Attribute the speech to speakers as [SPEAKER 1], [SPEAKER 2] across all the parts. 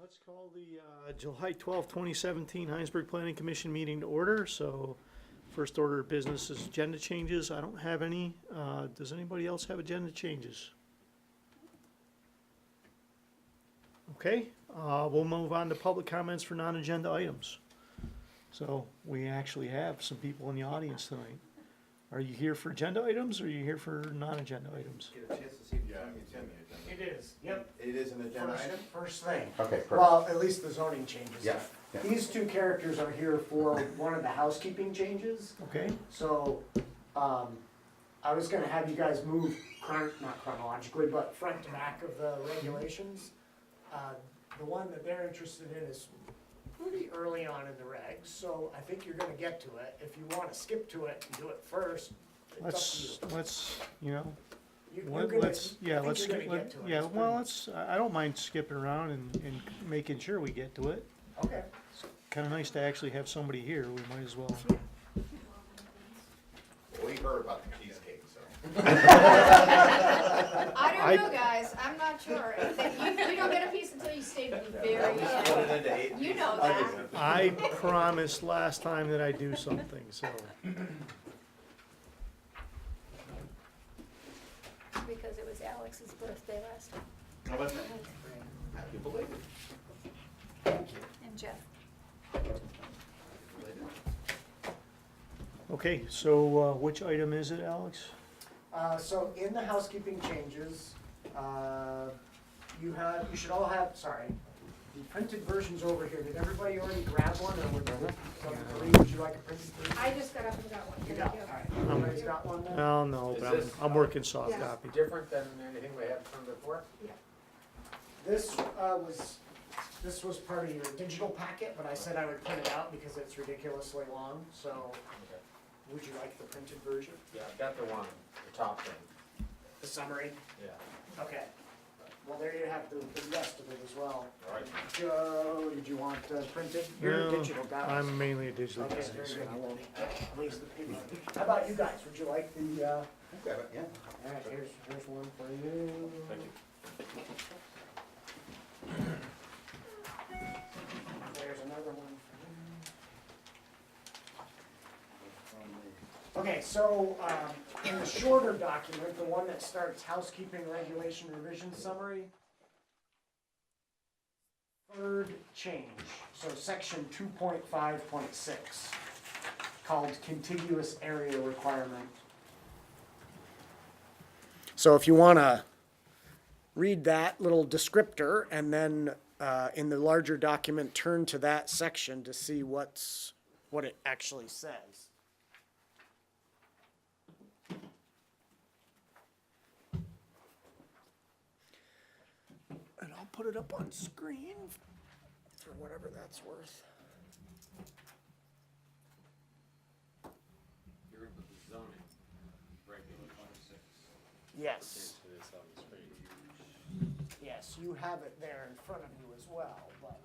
[SPEAKER 1] Let's call the uh, July twelfth, 2017 Heinsberg Planning Commission meeting to order. So first order of business is agenda changes. I don't have any. Uh, Does anybody else have agenda changes? Okay, uh, we'll move on to public comments for non-agenda items. So we actually have some people in the audience tonight. Are you here for agenda items or are you here for non-agenda items?
[SPEAKER 2] Get a chance to see if it's
[SPEAKER 3] Yeah,
[SPEAKER 2] on the
[SPEAKER 3] it's in
[SPEAKER 2] agenda.
[SPEAKER 3] the agenda.
[SPEAKER 4] It is, yep.
[SPEAKER 2] It is an agenda
[SPEAKER 4] First,
[SPEAKER 2] item?
[SPEAKER 4] first thing.
[SPEAKER 3] Okay, perfect.
[SPEAKER 4] Well, at least the zoning changes.
[SPEAKER 3] Yeah, yeah.
[SPEAKER 4] These two characters are here for one of the housekeeping changes,
[SPEAKER 1] Okay,
[SPEAKER 4] so, um, I was gonna have you guys move chron, not chronologically, but front to back of the regulations. Uh, the one that they're interested in is pretty early on in the regs, so I think you're gonna get to it. If you wanna skip to it and do it first, it's
[SPEAKER 1] let's,
[SPEAKER 4] up
[SPEAKER 1] let's, you know,
[SPEAKER 4] to you. you.
[SPEAKER 1] Let-
[SPEAKER 4] you're gonna-
[SPEAKER 1] Let's, yeah,
[SPEAKER 4] I think
[SPEAKER 1] let's,
[SPEAKER 4] you're
[SPEAKER 1] skip-
[SPEAKER 4] gonna
[SPEAKER 1] let-
[SPEAKER 4] get to it.
[SPEAKER 1] yeah,
[SPEAKER 4] It's
[SPEAKER 1] well,
[SPEAKER 4] pretty-
[SPEAKER 1] let's, I I don't mind skipping around and, and making sure we get to it.
[SPEAKER 4] Okay.
[SPEAKER 1] Kinda nice to actually have somebody here, we might as well.
[SPEAKER 2] We heard about the cheesecake, so.
[SPEAKER 5] I
[SPEAKER 1] I-
[SPEAKER 5] don't know, guys, I'm not sure. If they- You, you don't get a piece until you stay to the very
[SPEAKER 2] Split
[SPEAKER 5] end.
[SPEAKER 2] it into eight
[SPEAKER 5] You know
[SPEAKER 2] pieces.
[SPEAKER 5] that.
[SPEAKER 2] Okay.
[SPEAKER 1] I promised last time that I'd do something, so.
[SPEAKER 6] because it was Alex's birthday last week,
[SPEAKER 2] How about that? Happy belated.
[SPEAKER 6] and Jeff.
[SPEAKER 2] Belated.
[SPEAKER 1] Okay, so, uh, which item is it, Alex?
[SPEAKER 4] Uh, so in the housekeeping changes, uh, you have, you should all have, sorry, the printed versions over here, did everybody already grab one, or would somebody, Marie, would you like a printed version?
[SPEAKER 5] I just got up and got one.
[SPEAKER 4] You
[SPEAKER 5] Thank
[SPEAKER 4] got,
[SPEAKER 5] you.
[SPEAKER 4] alright, everybody's got one then?
[SPEAKER 1] Oh, no,
[SPEAKER 2] Is
[SPEAKER 1] but I'm,
[SPEAKER 2] this-
[SPEAKER 4] uh,
[SPEAKER 1] I'm working soft
[SPEAKER 5] Yeah.
[SPEAKER 1] copy.
[SPEAKER 2] Different than anything we had from before?
[SPEAKER 4] This, uh, was, this was part of your digital packet, but I said I would print it out because it's ridiculously long, so would you like the printed version,
[SPEAKER 2] Yeah, I've got the one, the top thing,
[SPEAKER 4] the summary?
[SPEAKER 2] yeah.
[SPEAKER 4] Okay, well, there you have the, the rest of it as well.
[SPEAKER 2] All right.
[SPEAKER 4] Joe, did you want uh, printed? You're a
[SPEAKER 1] No,
[SPEAKER 4] digital guy.
[SPEAKER 1] I'm mainly a digital
[SPEAKER 4] Okay,
[SPEAKER 1] guy,
[SPEAKER 4] very
[SPEAKER 1] so.
[SPEAKER 4] good, I will raise the paper. How about you guys, would you like the, uh,
[SPEAKER 3] Okay, yeah.
[SPEAKER 4] all right, here's, here's one for you.
[SPEAKER 2] Thank you.
[SPEAKER 4] There's another one for you. Okay, so, um, in the shorter document, the one that starts housekeeping regulation revision summary. Third change, so section two point five point six, called contiguous area requirement. So if you wanna read that little descriptor and then uh, in the larger document, turn to that section to see what's, what it actually says. And I'll put it up on screen for whatever that's worth.
[SPEAKER 2] You're gonna put the zoning regular twenty-six
[SPEAKER 4] Yes,
[SPEAKER 2] this on the screen.
[SPEAKER 4] yes, you have it there in front of you as well, but.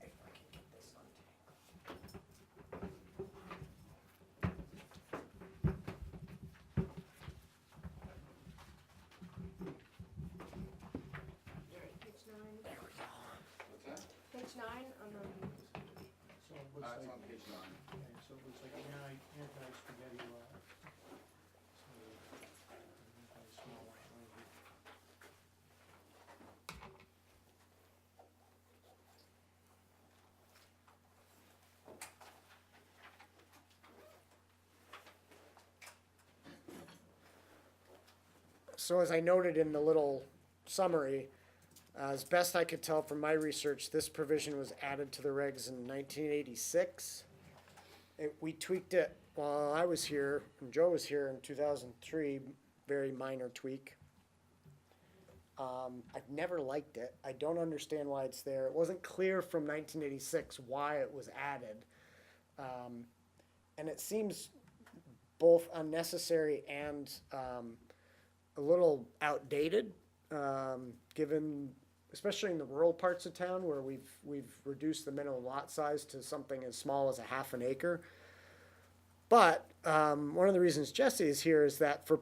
[SPEAKER 4] If I can get this untangled.
[SPEAKER 5] Page nine. Page nine on the.
[SPEAKER 1] So it looks like-
[SPEAKER 2] on page nine.
[SPEAKER 1] okay, so it looks like an anti- anti-spaghetti wrap. So, uh, anti-small white label.
[SPEAKER 4] So as I noted in the little summary, uh, as best I could tell from my research, this provision was added to the regs in nineteen eighty-six. It, we tweaked it while I was here, and Joe was here in two thousand three, very minor tweak. Um, I've never liked it. I don't understand why it's there. It wasn't clear from nineteen eighty-six why it was added. Um, and it seems both unnecessary and, um, a little outdated, um, given, especially in the rural parts of town where we've, we've reduced the minimum lot size to something as small as a half an acre. But, um, one of the reasons Jesse is here is that for